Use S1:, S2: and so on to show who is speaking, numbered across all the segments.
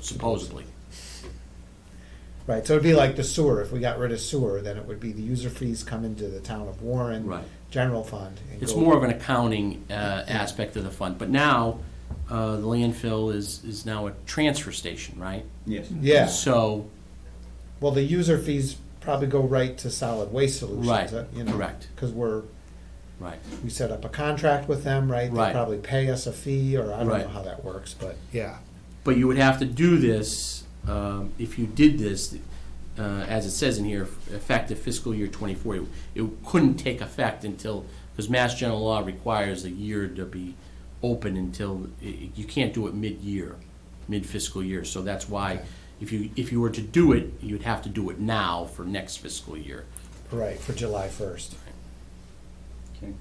S1: supposedly.
S2: Right, so it'd be like the sewer, if we got rid of sewer, then it would be the user fees come into the town of Warren.
S1: Right.
S2: General fund. and
S1: It's
S2: go-
S1: more of an accounting uh, aspect of the fund, but now, uh, the landfill is, is now a transfer station, right?
S3: Yes.
S2: Yeah,
S1: So,
S2: well, the user fees probably go right to solid waste solutions.
S1: Right,
S2: uh, you know,
S1: correct.
S2: Cause we're,
S1: right,
S2: we set up a contract with them, right?
S1: Right.
S2: They probably pay us a fee, or I don't
S1: Right.
S2: know how that works, but, yeah.
S1: but you would have to do this, um, if you did this, uh, as it says in here, effective fiscal year twenty-four. It- It couldn't take effect until, because Mass General Law requires a year to be open until, i- i- you can't do it mid-year, mid-fiscal year, so that's why, if you, if you were to do it, you'd have to do it now for next fiscal year.
S2: Right, for July first.
S3: Okay.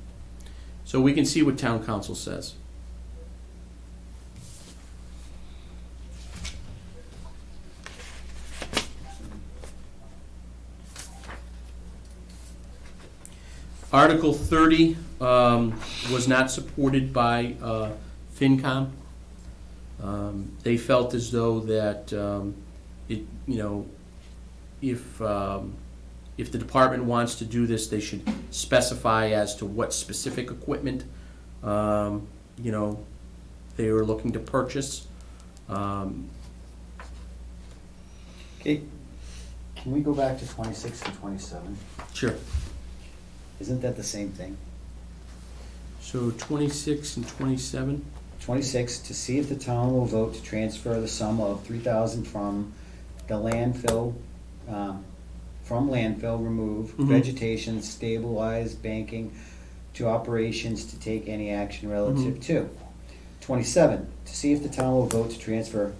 S1: So we can see what town council says. Article thirty, um, was not supported by, uh, FinCom. Um, they felt as though that, um, it, you know, if, um, if the department wants to do this, they should specify as to what specific equipment, um, you know, they are looking to purchase. Um,
S3: Okay.
S4: Can we go back to twenty-six and twenty-seven?
S1: Sure.
S4: Isn't that the same thing?
S1: So twenty-six and twenty-seven,
S4: Twenty-six, to see if the town will vote to transfer the sum of three thousand from the landfill, um, from landfill remove,
S1: Mhm.
S4: vegetation stabilize, banking, to operations to take any action relative to. Twenty-seven, to see if the town will vote to transfer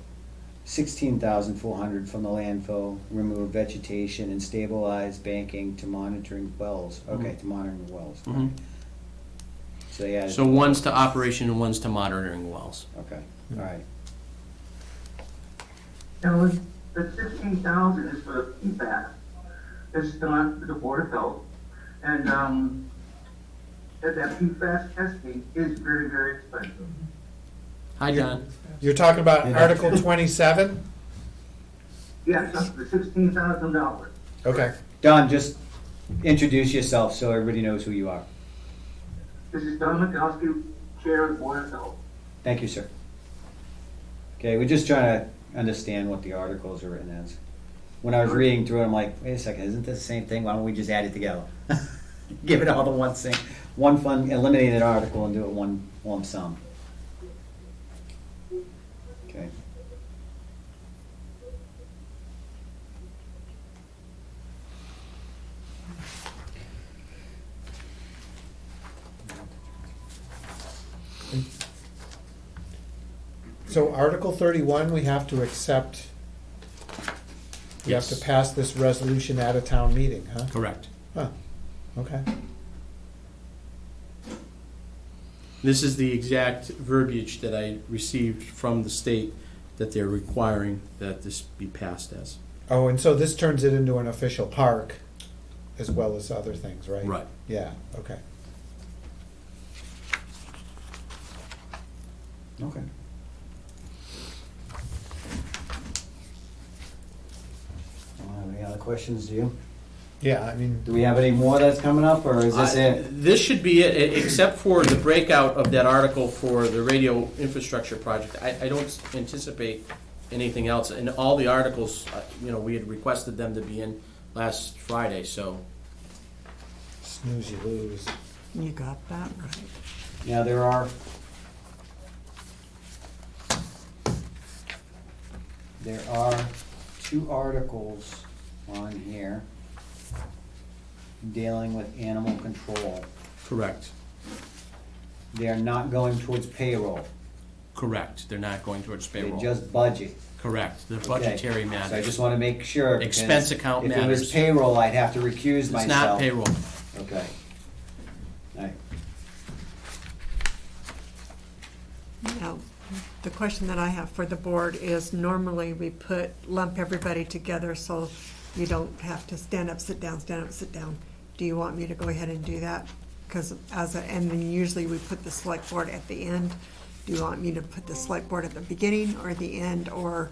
S4: sixteen thousand four hundred from the landfill, remove vegetation and stabilize banking to monitoring wells, okay, to monitoring wells.
S1: Mhm.
S4: So they added.
S1: so one's to operation and one's to monitoring wells.
S4: Okay, all right.
S5: And was, the fifteen thousand is for PFAS. It's done for the Board of Health. And, um, that, that PFAS testing is very, very expensive.
S1: Hi, John.
S2: You're talking about
S4: Yeah.
S2: Article twenty-seven?
S5: Yes, up to sixteen thousand dollars.
S2: Okay.
S4: Don, just introduce yourself so everybody knows who you are.
S5: This is Don Mikowski, Chair of the Board of Health.
S4: Thank you, sir. Okay, we're just trying to understand what the articles are written as. When I was reading through it, I'm like, wait a second, isn't this the same thing? Why don't we just add it together? Give it all to one thing, one fund, eliminate an article and do it one lump sum. Okay.
S2: So Article thirty-one, we have to accept, we have to
S1: Yes.
S2: pass this resolution at a town meeting, huh?
S1: Correct.
S2: Huh, okay.
S1: This is the exact verbiage that I received from the state that they're requiring that this be passed as.
S2: Oh, and so this turns it into an official park as well as other things, right?
S1: Right.
S2: Yeah, okay.
S4: Okay. Uh, Any other questions, do you?
S2: Yeah, I mean,
S4: Do we have any more that's coming up, or is this
S1: I-
S4: it?
S1: This should be it, e- except for the breakout of that article for the radio infrastructure project. I, I don't anticipate anything else, and all the articles, uh, you know, we had requested them to be in last Friday, so.
S2: snooze you lose.
S6: You got that right.
S4: Yeah, there are. There are two articles on here dealing with animal control.
S1: Correct.
S4: They are not going towards payroll,
S1: Correct, they're not going towards
S4: they're
S1: payroll.
S4: just budget.
S1: Correct, they're
S4: Okay.
S1: budgetary
S4: So I just
S1: matters.
S4: want to make sure. because
S1: Expense account
S4: If it
S1: matters.
S4: was payroll, I'd have to recuse myself.
S1: It's not payroll.
S4: Okay. All right.
S6: Now, the question that I have for the board is normally we put, lump everybody together so you don't have to stand up, sit down, stand up, sit down. Do you want me to go ahead and do that? Because as, a and then usually we put the select board at the end. Do you want me to put the select board at the beginning or the end or